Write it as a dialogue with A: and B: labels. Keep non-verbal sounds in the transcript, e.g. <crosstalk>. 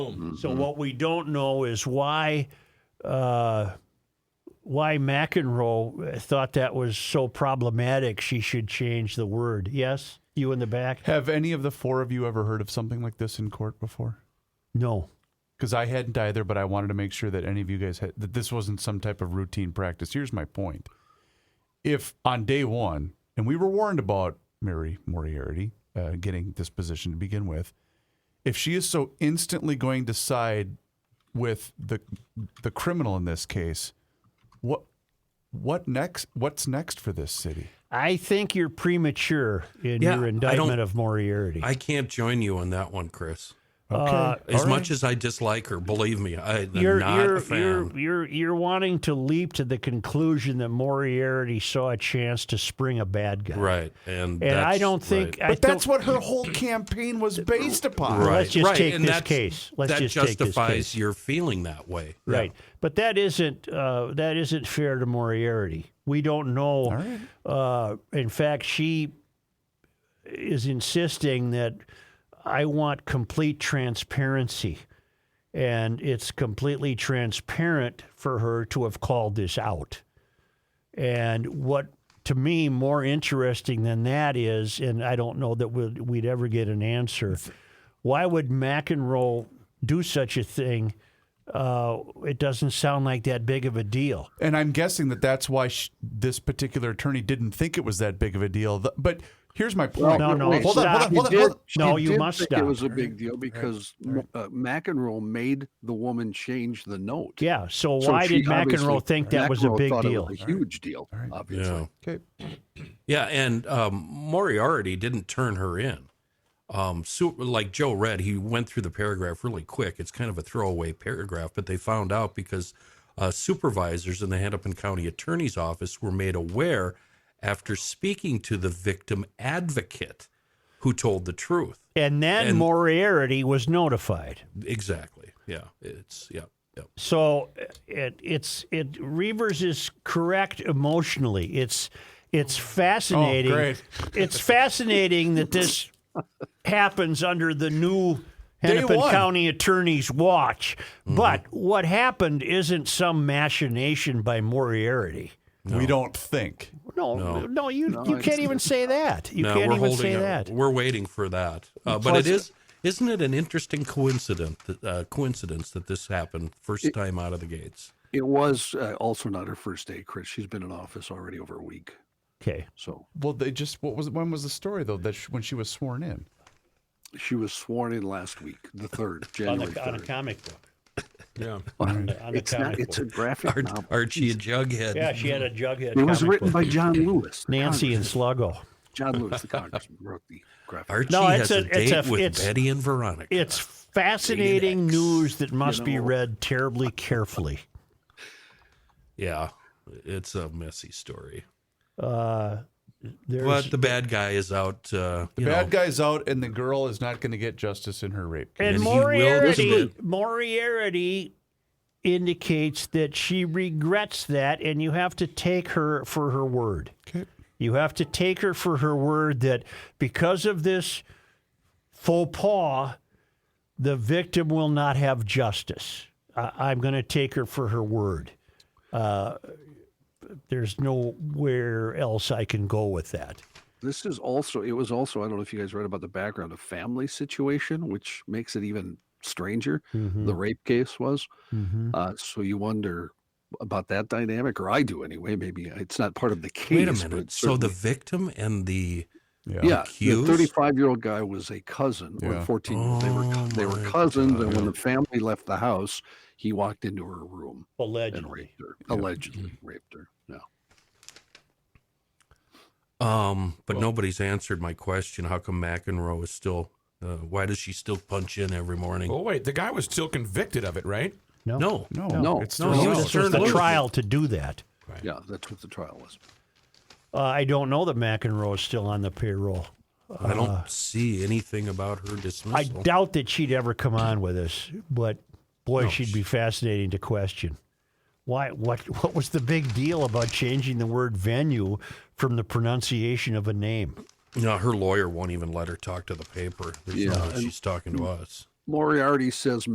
A: So
B: Mm-hmm.
A: what we don't know is why uh, why McEnroe thought that was so problematic. She should change the word. Yes, you in the back?
C: Have any of the four of you ever heard of something like this in court before?
A: No.
C: Because I hadn't either, but I wanted to make sure that any of you guys had that this wasn't some type of routine practice. Here's my point. If on day one, and we were warned about Mary Moriarty uh, getting this position to begin with, if she is so instantly going to side with the the criminal in this case, what what next? What's next for this city?
A: I think you're premature in
B: Yeah,
A: your
B: I
A: indictment
B: don't-
A: of Moriarty.
B: I can't join you on that one, Chris.
A: Uh,
B: As
C: all right.
B: much as I dislike her, believe me, I'm
A: you're,
B: not
A: you're,
B: a fan.
A: you're you're you're wanting to leap to the conclusion that Moriarty saw a chance to spring a bad guy.
B: Right,
A: And
B: and that's
A: I don't think
B: right.
A: I
C: But that's
A: don't-
C: what her whole campaign was based upon.
A: Well,
B: Right,
A: let's just
B: right,
A: take
B: and
A: this
B: that's-
A: case. Let's
B: that
A: just take this
B: justifies
A: case.
B: your feeling that way.
A: Right, but that isn't uh, that isn't fair to Moriarty. We don't know. Uh, in fact, she is insisting that I want complete transparency, and it's completely transparent for her to have called this out. And what to me more interesting than that is, and I don't know that we'd, we'd ever get an answer. Why would McEnroe do such a thing? Uh, it doesn't sound like that big of a deal.
C: And I'm guessing that that's why sh- this particular attorney didn't think it was that big of a deal. Th- but here's my point.
A: No, no,
C: hold on, hold
A: stop.
C: on, hold on,
D: She
C: hold on.
D: did- she
A: No, you
D: did
A: must
D: think
A: stop.
D: It was a big deal because uh, McEnroe made the woman change the note.
A: Yeah. So
D: So
A: why
D: she
A: did McEnroe
D: obviously-
A: think that was a
D: McEnroe
A: big
D: thought it
A: deal?
D: was a huge deal,
B: Yeah.
D: obviously.
C: Okay.
B: Yeah, and um, Moriarty didn't turn her in. Um, so, like Joe read, he went through the paragraph really quick. It's kind of a throwaway paragraph, but they found out because uh, supervisors in the Hennepin County Attorney's Office were made aware after speaking to the victim advocate who told the truth.
A: And then
B: And-
A: Moriarty was notified.
B: Exactly. Yeah. It's, yeah. yeah.
A: So uh, it, it's it Reavers is correct emotionally. It's it's fascinating.
C: Oh, great.
B: <laughs>
A: It's fascinating that this happens under the new Hennepin
C: one.
A: County attorney's watch.
B: Mm-hmm.
A: But what happened isn't some machination by Moriarty.
C: We don't think.
A: No, no, you you can't even say that. You
B: No,
A: can't
B: we're
A: even
B: holding
A: say
B: it.
A: that.
B: We're waiting for that. Uh, but it is, isn't it an interesting coincidence? That, uh, coincidence that this happened first time out of the gates.
D: It was uh, also not her first day, Chris. She's been in office already over a week.
A: Okay.
D: So
C: Well, they just what was when was the story though that sh- when she was sworn in?
D: she was sworn in last week, the 3rd,
A: <laughs> On,
D: January
A: the, on a
D: 3rd.
A: comic book.
B: <laughs>
A: uh,
B: Yeah,
A: On a
D: It's, not,
A: comic
D: it's a
A: book.
D: graphic novel.
B: Archie and Jughead.
A: Yeah, she
B: <laughs>
A: had a jughead.
D: It was
A: comic
D: written
A: book.
D: by John Lewis. the
A: Nancy and Sluggo.
D: John
A: <laughs>
D: Lewis, the congressman, wrote the graphic.
B: Archie
A: No, it's
B: has a,
A: a- it's
B: date
A: a-
B: with
A: it's-
B: Betty and Veronica.
A: It's fascinating
B: Phoenix.
A: news that must be
D: Uh, know.
A: read terribly carefully.
B: yeah, it's a messy story.
A: Uh, there's,
B: But the bad guy is out. Uh,
C: The
B: you
C: bad
B: know,
C: guy's out, and the girl is not going to get justice in her rape.
A: and
C: case.
B: and he will
A: Moriarty,
B: listen.
A: Moriarty indicates that she regrets that, and you have to take her for her word.
C: Okay.
A: You have to take her for her word that because of this faux pas, the victim will not have justice. I I'm going to take her for her word. Uh, there's nowhere else I can go with that.
D: This is also, it was also, I don't know if you guys read about the background of family situation, which makes it even stranger.
B: Hmm.
D: The rape case was. Uh, so you wonder about that dynamic, or I do anyway. Maybe uh, it's not part of the case.
B: wait a
D: but
B: minute.
D: it
B: So the
D: certainly-
B: victim and the
D: yeah,
B: accused?
D: the 35 year old guy was a cousin
C: Yeah.
D: or 14 year old. They were, co- they were
B: Oh my
D: cousins. And when the family left the house, he walked into her room and
A: Allegedly.
D: raped her, allegedly raped her. No.
B: Um, but nobody's answered my question. How come McEnroe is still? Uh, why does she still punch in every morning?
E: Oh wait, the guy was still convicted of it, right?
A: No.
B: No,
C: No,
D: No.
C: it's
B: No,
C: thrown
B: he was
C: out.
A: This was
B: turned
A: the
B: loose.
A: trial to do that.
D: Yeah, that's what the trial was.
A: Uh, I don't know that McEnroe is still on the payroll.
B: I don't see anything about her
A: Uh, I
B: dismissal.
A: doubt that she'd ever come on with us, but boy, she'd be fascinating to question. Why? What? What was the big deal about changing the word venue from the pronunciation of a name?
B: no, her lawyer won't even let her talk to the paper. There's no
D: Yeah,
B: way she's talking to us.
D: Moriarty says